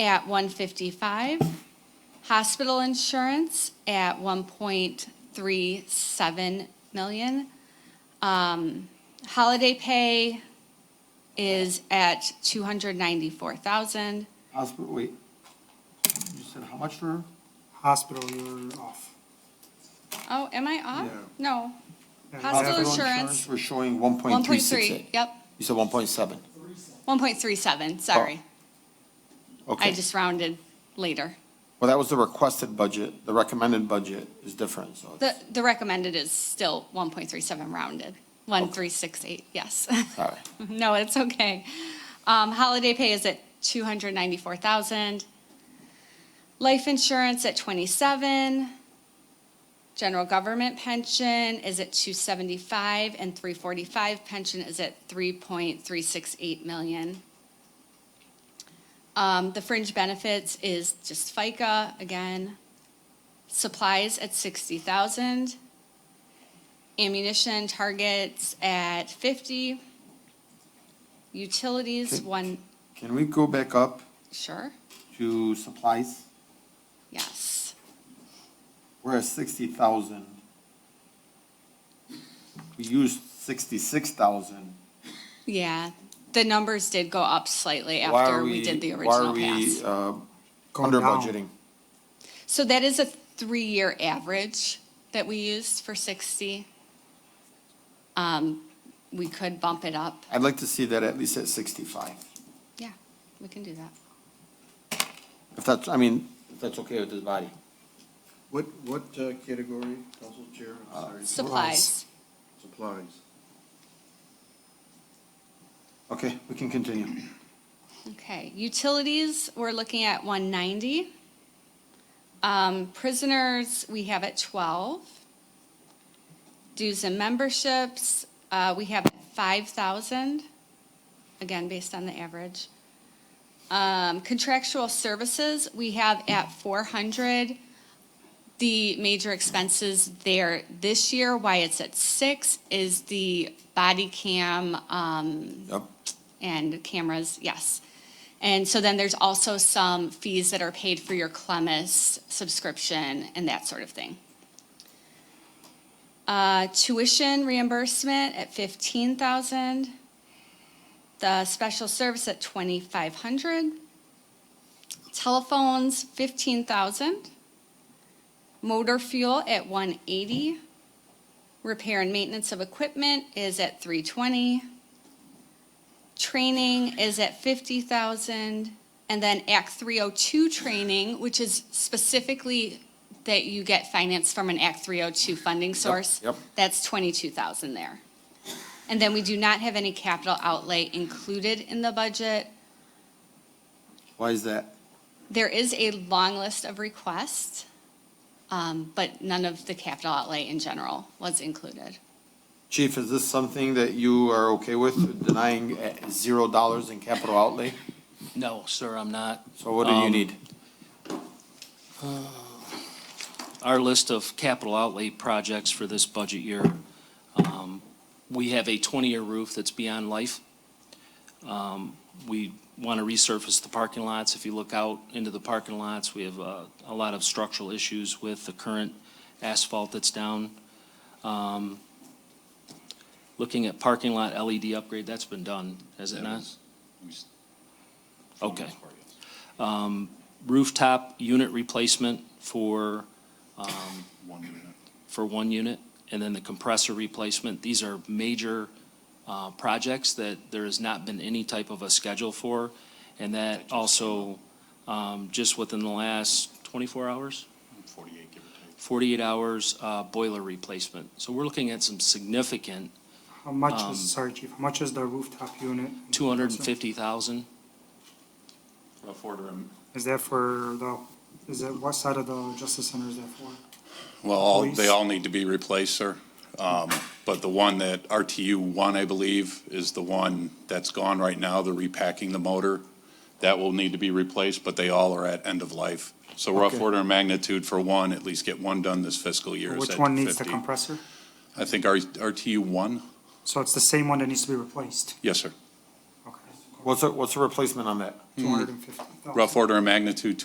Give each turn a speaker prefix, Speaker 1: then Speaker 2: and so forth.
Speaker 1: at 155, hospital insurance at 1.37 million. Um, Holiday pay is at 294,000.
Speaker 2: Hospital, wait, you said how much for?
Speaker 3: Hospital, you're off.
Speaker 1: Oh, am I off?
Speaker 2: Yeah.
Speaker 1: No,
Speaker 3: Yeah, you're
Speaker 1: Hospital
Speaker 3: off.
Speaker 1: insurance.
Speaker 2: We're showing one point three six
Speaker 1: 1.3,
Speaker 2: eight.
Speaker 1: yep,
Speaker 2: You said one point seven,
Speaker 1: 1.37, sorry. I
Speaker 2: Oh, okay.
Speaker 1: just rounded later.
Speaker 2: Well, that was the requested budget, the recommended budget is different, so.
Speaker 1: The,
Speaker 2: it's-
Speaker 1: the recommended is still 1.37 rounded, 1.368, yes.
Speaker 2: All right.
Speaker 1: No, it's okay. Um, holiday pay is at two hundred ninety-four thousand. Life insurance at twenty-seven. General government pension is at two seventy-five and three forty-five pension is at three point three six eight million. Um, the fringe benefits is just FICA again. Supplies at sixty thousand. Ammunition targets at fifty. Utilities,
Speaker 2: Okay.
Speaker 1: one,
Speaker 2: Can we go back up
Speaker 1: sure,
Speaker 2: to supplies?
Speaker 1: yes.
Speaker 2: We're at sixty thousand. We used sixty-six thousand.
Speaker 1: Yeah, the numbers did go up slightly after we did the original pass.
Speaker 2: Why are we, uh,
Speaker 3: Going
Speaker 2: under
Speaker 3: down.
Speaker 2: budgeting?
Speaker 1: So that is a three-year average that we used for 60. Um, We could bump it up.
Speaker 2: I'd like to see that at least at sixty-five.
Speaker 1: Yeah, we can do that.
Speaker 2: If that's, I mean, if that's okay with this body.
Speaker 4: What, what uh, category, Council Chair?
Speaker 2: Uh,
Speaker 4: I'm sorry,
Speaker 1: Supplies.
Speaker 4: Supplies.
Speaker 2: Okay, we can continue.
Speaker 1: Okay, utilities, we're looking at 190. Um, Prisoners, we have at 12. Dues and memberships, uh, we have at 5,000, again, based on the average. Um, Contractual services, we have at 400. The major expenses there this year, why it's at 6, is the body cam um,
Speaker 2: Yep.
Speaker 1: and cameras, yes. And so then there's also some fees that are paid for your Clemis subscription and that sort of thing. Uh, tuition reimbursement at fifteen thousand. The special service at twenty-five hundred. Telephones, fifteen thousand. Motor fuel at one eighty. Repair and maintenance of equipment is at three twenty training is at fifty thousand, and then Act three oh two training, which is specifically that you get finance from an Act three oh two funding source.
Speaker 2: yep.
Speaker 1: That's twenty-two thousand there. And then we do not have any capital outlay included in the budget.
Speaker 2: Why is that?
Speaker 1: There is a long list of requests, um, but none of the capital outlay in general was included.
Speaker 2: Chief, is this something that you are okay with, denying at zero dollars in capital outlay?
Speaker 5: No, sir, I'm not.
Speaker 2: So what do you
Speaker 5: Um,
Speaker 2: need?
Speaker 5: Our list of capital outlay projects for this budget year, um, we have a 20-year roof that's beyond life. Um, We want to resurface the parking lots. If you look out into the parking lots, we have uh, a lot of structural issues with the current asphalt that's down. Um, Looking at parking lot LED upgrade, that's been done, has it not? Okay. Um, Rooftop unit replacement for um,
Speaker 4: One minute.
Speaker 5: for one unit, and then the compressor replacement. These are major uh, projects that there has not been any type of a schedule for, and that also, um, just within the last 24 hours,
Speaker 4: 48, give or
Speaker 5: 48 hours, uh, boiler replacement. So we're looking at some significant,
Speaker 3: How much
Speaker 5: Um,
Speaker 3: is, sorry, chief, how much is the rooftop unit?
Speaker 5: 250,000.
Speaker 4: take. About four to.
Speaker 3: Is that for the, is that, what side of the Justice Center is that for?
Speaker 6: Well, all-
Speaker 3: Police.
Speaker 6: they all need to be replaced, sir. Um, But the one that, RTU one, I believe, is the one that's gone right now. They're repacking the motor. That will need to be replaced, but they all are at end of life. So rough
Speaker 2: Okay.
Speaker 6: order of magnitude for one, at least get one done this fiscal year. is
Speaker 3: Which
Speaker 6: at
Speaker 3: one needs the
Speaker 6: 50.
Speaker 3: compressor?
Speaker 6: I think R- RTU one,
Speaker 3: So it's the same one that needs to be replaced?
Speaker 6: yes, sir.
Speaker 3: Okay.
Speaker 7: What's the, what's the replacement on that?
Speaker 2: Hmm. two hundred and fifty thousand.
Speaker 3: Rough order of magnitude,